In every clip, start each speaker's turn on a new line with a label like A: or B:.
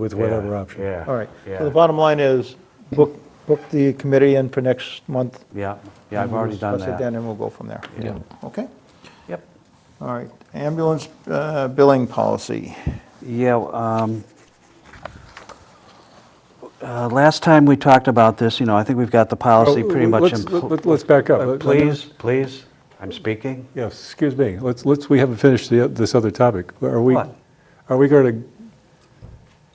A: with
B: Yeah,
A: whatever option.
B: yeah.
C: All right. So
B: Yeah.
C: the bottom line is, book, book the committee in for next month.
B: Yeah, yeah, I've
C: and we'll
B: already done
C: Discuss it
B: that.
C: then, and we'll go from there.
B: Yeah.
C: Okay?
B: Yep.
C: All right. Ambulance uh, billing policy.
B: Yeah, um, uh, last time we talked about this, you know, I think we've got the policy
A: Oh,
B: pretty much in.
A: let's- let- Let's back up.
B: Uh,
A: Let-
B: Please, please, I'm speaking.
A: Yes, excuse me, let's, let's, we haven't finished the- this other topic. Are we,
B: What?
A: are we going to,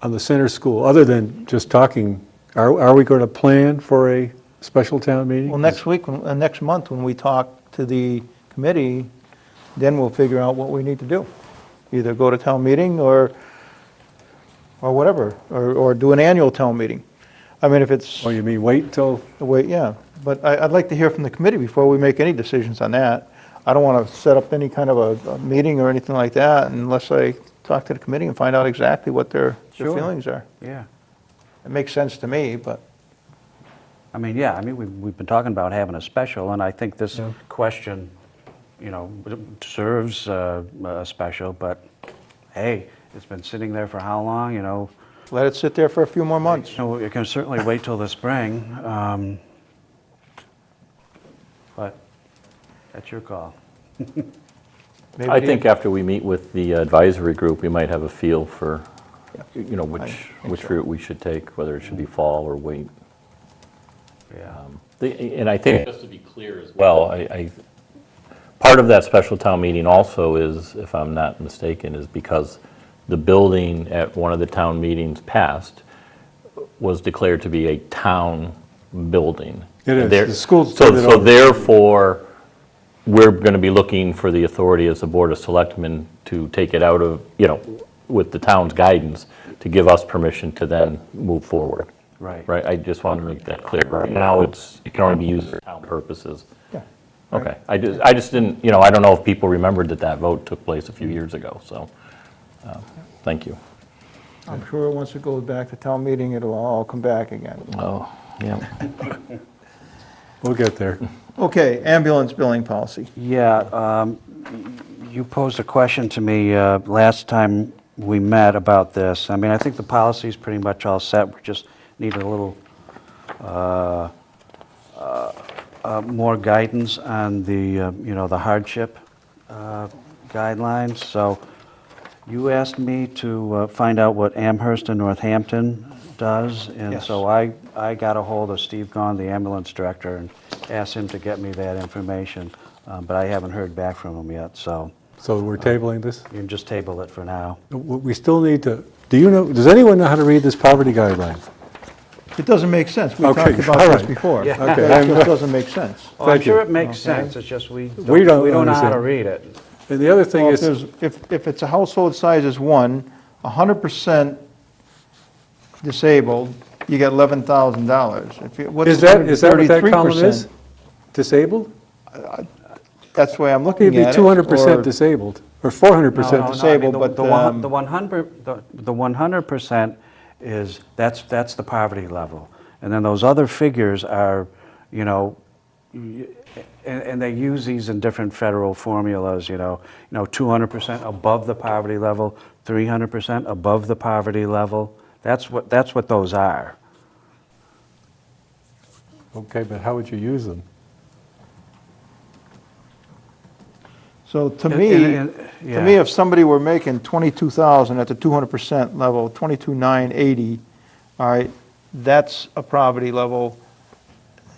A: on the center school, other than just talking, are, are we going to plan for a special town meeting?
C: Well, next week, when- uh, next month, when we talk to the committee, then we'll figure out what we need to do. Either go to town meeting or, or whatever, or, or do an annual town meeting. I mean, if it's,
A: Oh, you mean wait till,
C: wait, yeah, but I, I'd like to hear from the committee before we make any decisions on that. I don't want to set up any kind of a, a meeting or anything like that unless I talk to the committee and find out exactly what their, their
B: Sure.
C: feelings are.
B: Yeah.
C: It makes sense to me, but,
B: I mean, yeah, I mean, we've, we've been talking about having a special, and I think this
A: Yeah.
B: question, you know, serves uh, a special, but hey, it's been sitting there for how long, you know?
C: let it sit there for a few more months.
B: So you can certainly wait till the spring, um, but that's your call.
C: Maybe
D: I
C: the-
D: think after we meet with the advisory group, we might have a feel for, you know,
C: I
D: which,
C: think
D: which
C: so.
D: route we should take, whether it should be fall or wait. Um,
B: Yeah.
D: The- And I think. Just to be clear as well. I, I, part of that special town meeting also is, if I'm not mistaken, is because the building at one of the town meetings passed was declared to be a town building.
A: It is.
D: There-
A: The schools
D: so-
A: turned it
D: So
A: over.
D: therefore, we're going to be looking for the authority as the Board of Selectmen to take it out of, you know, with the town's guidance, to give us permission to then move forward.
B: Right.
D: Right, I just wanted to make that clear. Right now, it's, it can only be used for town purposes.
C: Yeah.
D: Okay, I just, I just didn't, you know, I don't know if people remembered that that vote took place a few years ago, so, um, thank you.
C: I'm sure once it goes back to town meeting, it'll all come back again.
D: Oh, yeah.
A: we'll get there.
C: Okay, ambulance billing policy.
B: Yeah, um, you posed a question to me uh, last time we met about this. I mean, I think the policy's pretty much all set, we just need a little uh, uh, uh, more guidance on the, uh, you know, the hardship uh, guidelines. So you asked me to uh, find out what Amherst and Northampton does. And
C: Yes.
B: so I, I got a hold of Steve Gahn, the ambulance director, and asked him to get me that information. um, But I haven't heard back from him yet, so
A: So we're tabling this?
B: you can just table it for now.
A: W- We still need to, do you know, does anyone know how to read this poverty guideline?
C: It doesn't make sense. We
A: Okay,
C: talked about
A: all
C: this
A: right.
C: before. It
B: Yeah.
A: Okay, I'm-
C: just doesn't make sense.
B: Oh, I'm
A: Thank you.
B: sure it makes sense, it's just we,
A: We don't
B: don't- we don't know how to
A: understand.
B: read it.
A: And the other thing
C: Well, if
A: is,
C: there's, if, if it's a household size is one, hundred percent disabled, you get eleven thousand dollars.
A: is that, is that what that column is? Disabled?
C: That's the way I'm
A: It'd
C: looking
A: be
C: at it.
A: 200%
C: or-
A: disabled, or
B: No, no, no, I
A: 400%
B: mean,
C: disabled,
B: the-
C: but,
B: the one-
C: um,
B: The 100, the the 100% is, that's, that's the poverty level. And then those other figures are, you know, y- and, and they use these in different federal formulas, you know, you know, 200% above the poverty level, 300% above the poverty level. That's what, that's what those are.
A: Okay, but how would you use them?
C: So to
B: And-
C: me,
B: and-
C: to
B: and-
C: me,
B: yeah.
C: if somebody were making 22,000 at the 200% level, 22,980, all right, that's a poverty level.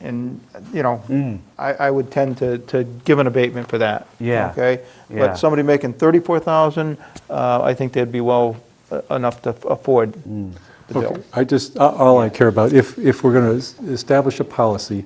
C: And, you
B: Mm.
C: know, I, I would tend to, to give an abatement for that.
B: Yeah,
C: Okay?
B: yeah.
C: But somebody making 34,000, uh, I think they'd be well uh, enough to afford
B: Mm.
C: the bill.
A: Okay, I just, a- all I care about, if, if we're going to establish a policy,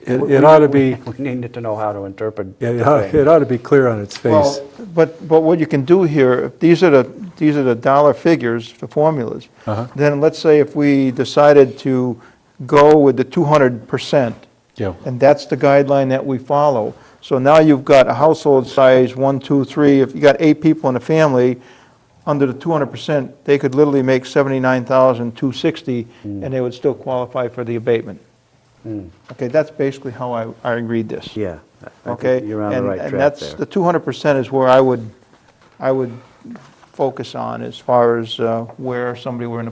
A: it it ought to be,
B: We needed to know how to interpret.
A: yeah, it
B: the
A: ought
B: thing.
A: it ought to be clear on its face.
C: Well, but, but what you can do here, if these are the, these are the dollar figures, the formulas,
A: Uh-huh.
C: then let's say if we decided to go with the 200%,
A: Yeah.
C: and that's the guideline that we follow. So now you've got a household size, one, two, three, if you got eight people in a family, under the 200%, they could literally make 79,260,
A: Hmm.
C: and they would still qualify for the abatement. Okay, that's basically how I, I read this.
B: Yeah. I think
C: Okay?
B: You're on the
C: And-
B: right track there.
C: And that's, the 200% is where I would, I would focus on as far as uh, where somebody were in a